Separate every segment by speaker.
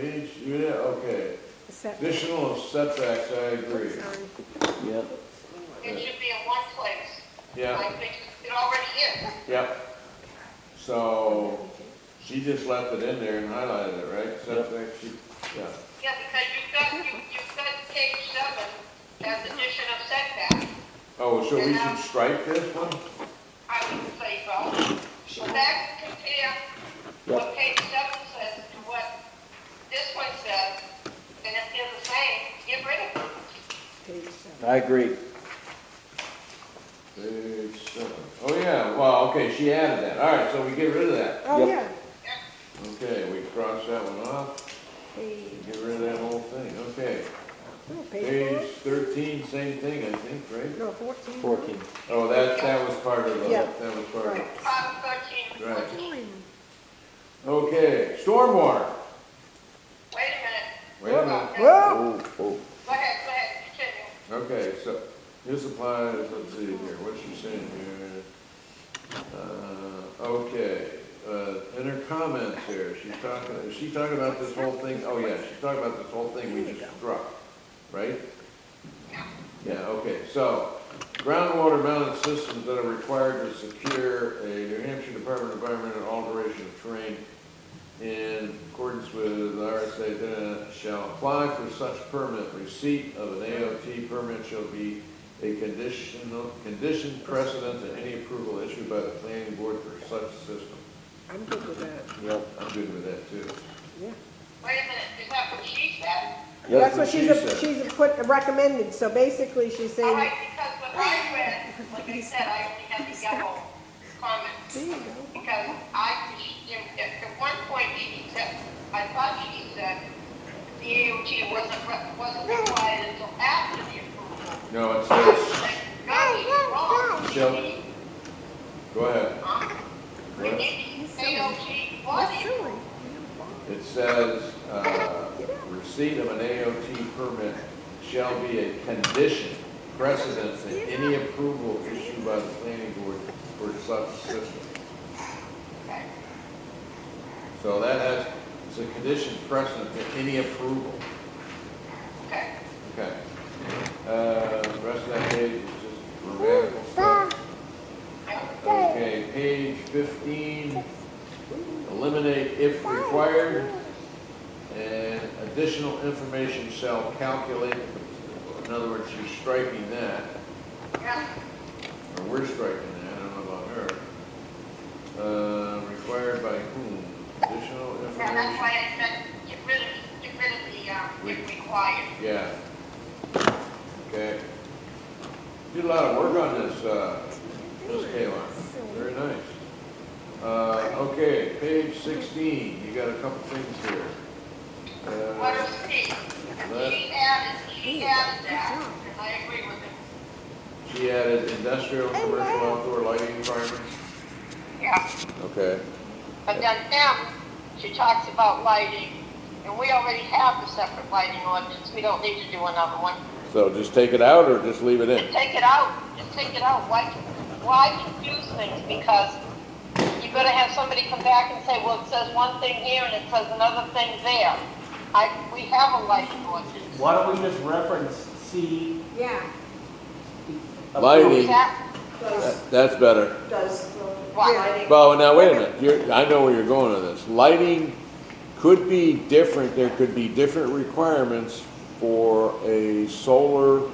Speaker 1: each unit, Uh, okay.
Speaker 2: Set-
Speaker 1: Additional setbacks, I agree.
Speaker 2: Sorry.
Speaker 3: yeah.
Speaker 4: It should be in one place,
Speaker 1: Yeah,
Speaker 4: like it it already is.
Speaker 1: yep. So, she just left it in there and highlighted it, right? Setbacks, she, yeah.
Speaker 4: Yeah, because you've got, you- you've got page seven as addition of setback.
Speaker 1: Oh, so we should strike this one?
Speaker 4: I would say so. So that compare what page seven says to what this one says, and if they're the same, get rid of them.
Speaker 2: Page seven.
Speaker 3: I agree.
Speaker 1: Page seven. Oh, yeah, well, okay, she added that. All right, so we get rid of that.
Speaker 2: Oh,
Speaker 3: Yep.
Speaker 2: yeah.
Speaker 1: Okay, we cross that one off,
Speaker 2: Page,
Speaker 1: get rid of that whole thing, okay.
Speaker 2: no,
Speaker 1: Page
Speaker 2: Oh, page
Speaker 1: thirteen, same thing, I think, right?
Speaker 2: four, no, fourteen.
Speaker 3: Fourteen.
Speaker 1: Oh, that, that was part of the,
Speaker 2: Yeah.
Speaker 1: that was part of it.
Speaker 4: Five, thirteen,
Speaker 1: Right.
Speaker 4: fourteen.
Speaker 2: Nine.
Speaker 1: Okay, stormwater.
Speaker 4: Wait a minute.
Speaker 1: Wait a minute.
Speaker 2: Whoa,
Speaker 3: Oh, oh.
Speaker 4: Go ahead, go ahead, continue.
Speaker 1: Okay, so this applies, let's see here, what you saying here? Uh, Okay, uh, in her comments here, she's talking, is she talking about this whole thing? Oh, yeah, she's talking about this whole thing we just struck, right? Yeah, okay, so groundwater mounted systems that are required to secure a New Hampshire Department of Environmental Alteration of Terrain in accordance with RSA, then shall apply for such permit. Receipt of an AOT permit shall be a conditional, condition precedent to any approval issued by the planning board for such system.
Speaker 2: I'm good with that,
Speaker 1: Yep. I'm good with that too.
Speaker 2: yeah.
Speaker 4: Wait a minute, is that what she said?
Speaker 2: That's what
Speaker 1: what
Speaker 2: she's,
Speaker 1: she said.
Speaker 2: she's put, recommended, so basically she's
Speaker 4: All
Speaker 2: saying,
Speaker 4: right, because what I read, like I said, I only had the yellow comment,
Speaker 2: there you go.
Speaker 4: because I, she- at at one point she said, I thought she said the AOT wasn't, re- wasn't required until after the approval.
Speaker 1: No, it says,
Speaker 4: Like, God, you're wrong.
Speaker 1: Shall- go ahead.
Speaker 4: Huh?
Speaker 1: Go ahead.
Speaker 4: Maybe AOT was
Speaker 2: That's
Speaker 4: it.
Speaker 2: silly.
Speaker 1: It says, uh, receipt of an AOT permit shall be a condition precedent to any approval issued by the planning board for such system. So that has, it's a condition precedent to any approval.
Speaker 4: Okay.
Speaker 1: Okay. Uh, the rest of that page is just grammatical stuff. Okay, page fifteen, eliminate if required. And additional information shall calculate, in other words, you're striking that,
Speaker 4: Yeah,
Speaker 1: or we're striking that, I don't know about her. Uh, required by whom? Additional
Speaker 4: yeah, that's
Speaker 1: information?
Speaker 4: why I said, get rid of, get rid of the, um, if required.
Speaker 1: Yeah. Okay. Did a lot of work on this, uh, Ms. Kayla. Very nice. Uh, okay, page sixteen, you got a couple things here.
Speaker 4: What
Speaker 1: Uh,
Speaker 4: is P? She added, she added that, and I agree with it.
Speaker 1: she added industrial, commercial, outdoor lighting requirements.
Speaker 4: Yeah.
Speaker 1: Okay.
Speaker 4: But then M, she talks about lighting, and we already have the separate lighting ordinance, we don't need to do another one.
Speaker 1: So just take it out or just leave it
Speaker 4: Just take it out, just take it out, why, why confuse things? Because you're gonna have somebody come back and say, well, it says one thing here and it says another thing there. I, we have a lighting ordinance.
Speaker 5: Why don't we just reference C?
Speaker 2: Yeah.
Speaker 1: Lighting.
Speaker 4: Is that,
Speaker 6: Does,
Speaker 1: That's better.
Speaker 6: does the
Speaker 4: Why?
Speaker 6: lighting,
Speaker 1: Well, now, wait a minute, you're, I know where you're going with this. Lighting could be different, there could be different requirements for a solar,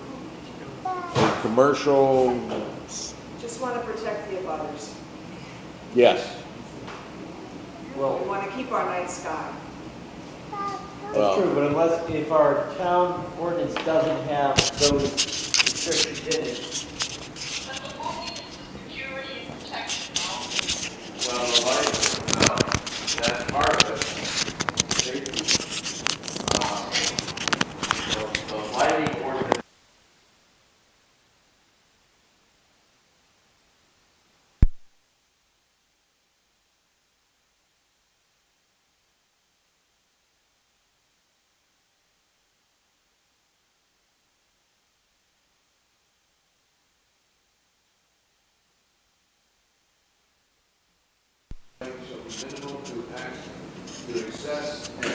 Speaker 1: a commercial,
Speaker 6: just want to protect the abutters.
Speaker 1: yes.
Speaker 6: We
Speaker 5: Well,
Speaker 6: want to keep our night sky.
Speaker 5: that's true, but unless, if our town ordinance doesn't have those restrictions in it.
Speaker 4: but the ordinance is security and protection, no?
Speaker 1: Well, the lighting, no, that part of it, safety. uh, The the lighting ordinance shall be minimal to access, to access and